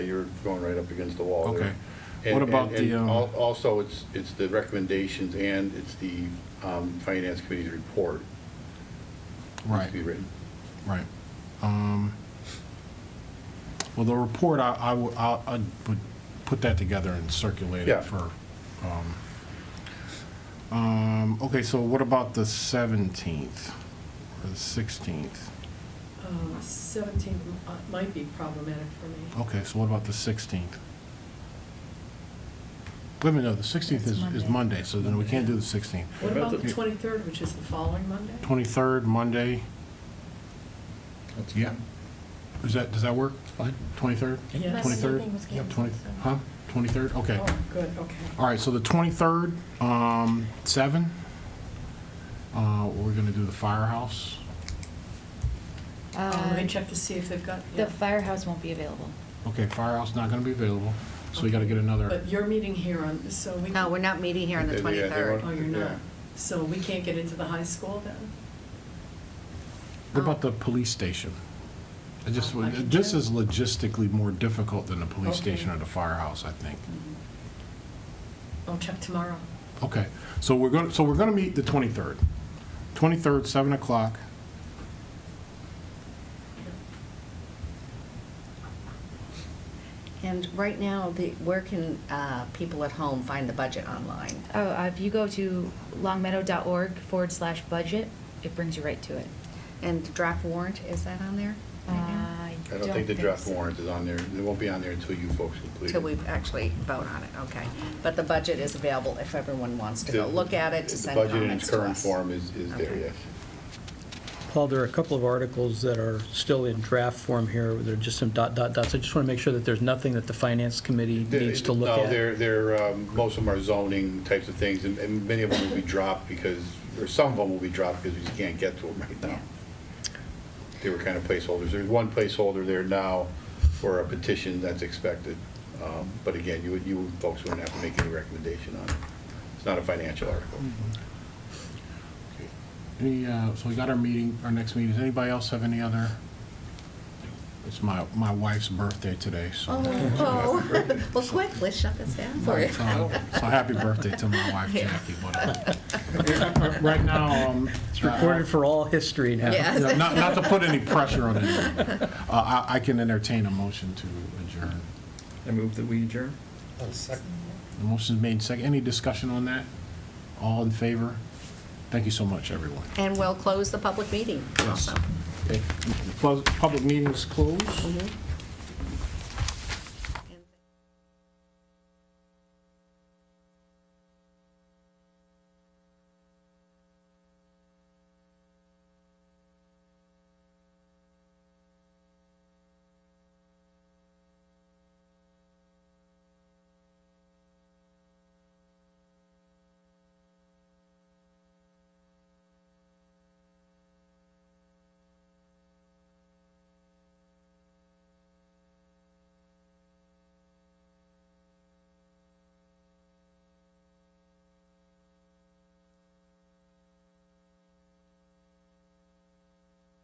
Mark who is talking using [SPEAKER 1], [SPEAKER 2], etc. [SPEAKER 1] you're going right up against the wall there.
[SPEAKER 2] Okay.
[SPEAKER 1] And-
[SPEAKER 2] What about
[SPEAKER 1] and- and
[SPEAKER 2] the, um,
[SPEAKER 1] al- Also, it's, it's the recommendations and it's the um, Finance Committee's report. needs
[SPEAKER 2] Right,
[SPEAKER 1] to be written.
[SPEAKER 2] right. Um, Well, the report, I, I would, I I would put that together and circulate
[SPEAKER 1] Yeah.
[SPEAKER 2] it for, um, um, okay, so what about the 17th or the 16th?
[SPEAKER 3] Seventeenth uh, might be problematic for me.
[SPEAKER 2] Okay, so what about the 16th? Wait a minute, no, the 16th is,
[SPEAKER 4] That's
[SPEAKER 2] is
[SPEAKER 4] Monday.
[SPEAKER 2] Monday, so then we can't do the 16th.
[SPEAKER 3] What
[SPEAKER 1] about
[SPEAKER 3] about the
[SPEAKER 2] the-
[SPEAKER 3] twenty-third, which is the following Monday?
[SPEAKER 2] 23rd, Monday,
[SPEAKER 5] That's
[SPEAKER 2] yeah. Is that, does that work?
[SPEAKER 5] fine.
[SPEAKER 2] 23rd?
[SPEAKER 3] Yeah.
[SPEAKER 4] Monday
[SPEAKER 2] 23rd?
[SPEAKER 4] evening was
[SPEAKER 2] Yep,
[SPEAKER 4] canceled,
[SPEAKER 2] 20
[SPEAKER 4] so-
[SPEAKER 2] Huh? 23rd, okay.
[SPEAKER 3] Oh, good, okay.
[SPEAKER 2] All right, so the 23rd, um, 7. Uh, We're going to do the firehouse.
[SPEAKER 3] Uh, Let me
[SPEAKER 4] Uh,
[SPEAKER 3] check to see if they've got, yeah.
[SPEAKER 4] The firehouse won't be available.
[SPEAKER 2] Okay, firehouse not going to be available, so we got to get another,
[SPEAKER 3] but you're meeting here on, so we.
[SPEAKER 6] No, we're not meeting here on the
[SPEAKER 1] Yeah, they- yeah, they
[SPEAKER 6] 23rd.
[SPEAKER 1] weren't-
[SPEAKER 3] Oh, you're not.
[SPEAKER 1] Yeah.
[SPEAKER 3] So we can't get into the high school then?
[SPEAKER 2] what about the police station? I just,
[SPEAKER 3] I can
[SPEAKER 2] this
[SPEAKER 3] check.
[SPEAKER 2] is logistically more difficult than the police
[SPEAKER 3] Okay.
[SPEAKER 2] station or the firehouse, I think.
[SPEAKER 3] I'll check tomorrow.
[SPEAKER 2] Okay, so we're going, so we're going to meet the 23rd. 23rd, 7 o'clock.
[SPEAKER 6] And right now, the, where can uh, people at home find the budget online?
[SPEAKER 4] Oh, uh, if you go to longmeadow.org forward slash budget, it brings you right to it.
[SPEAKER 6] And the draft warrant, is that on there?
[SPEAKER 4] Uh, I
[SPEAKER 1] I don't think the draft
[SPEAKER 4] so.
[SPEAKER 1] warrant is on there. It won't be on there until you folks complete it.
[SPEAKER 6] Till we actually vote on it, okay. But the budget is available if everyone wants to go
[SPEAKER 1] The-
[SPEAKER 6] look at it, to send
[SPEAKER 1] The budget in
[SPEAKER 6] comments
[SPEAKER 1] its
[SPEAKER 6] to
[SPEAKER 1] current
[SPEAKER 6] us.
[SPEAKER 1] form is, is there,
[SPEAKER 6] Okay.
[SPEAKER 1] yes.
[SPEAKER 5] Paul, there are a couple of articles that are still in draft form here. There are just some dot, dot, dots. I just want to make sure that there's nothing that the finance committee needs to look
[SPEAKER 1] No,
[SPEAKER 5] at.
[SPEAKER 1] they're, they're, um, most of them are zoning types of things, and- and many of them will be dropped because, or some of them will be dropped because we just can't get to them right now. They were kind of placeholders. There's one placeholder there now for a petition that's expected. Um, But again, you would, you folks wouldn't have to make any recommendation on it. It's not a financial article.
[SPEAKER 2] Any, uh, so we got our meeting, our next meeting. Does anybody else have any other? It's my, my wife's birthday today, so.
[SPEAKER 6] Oh, oh. well, quick, let's shut this down for you.
[SPEAKER 2] So so happy birthday to my wife, Jackie. but, uh, Right now, um. uh,
[SPEAKER 5] It's recorded for all history now.
[SPEAKER 6] Yeah.
[SPEAKER 2] Yeah, Not, not to put any pressure on anyone. Uh, I, I can entertain a motion to adjourn.
[SPEAKER 7] I move that we adjourn.
[SPEAKER 2] The motion's made second. Any discussion on that? All in favor? Thank you so much, everyone.
[SPEAKER 6] And we'll close the public meeting
[SPEAKER 2] Yes.
[SPEAKER 6] also.
[SPEAKER 2] Okay. Close- Public meeting's closed.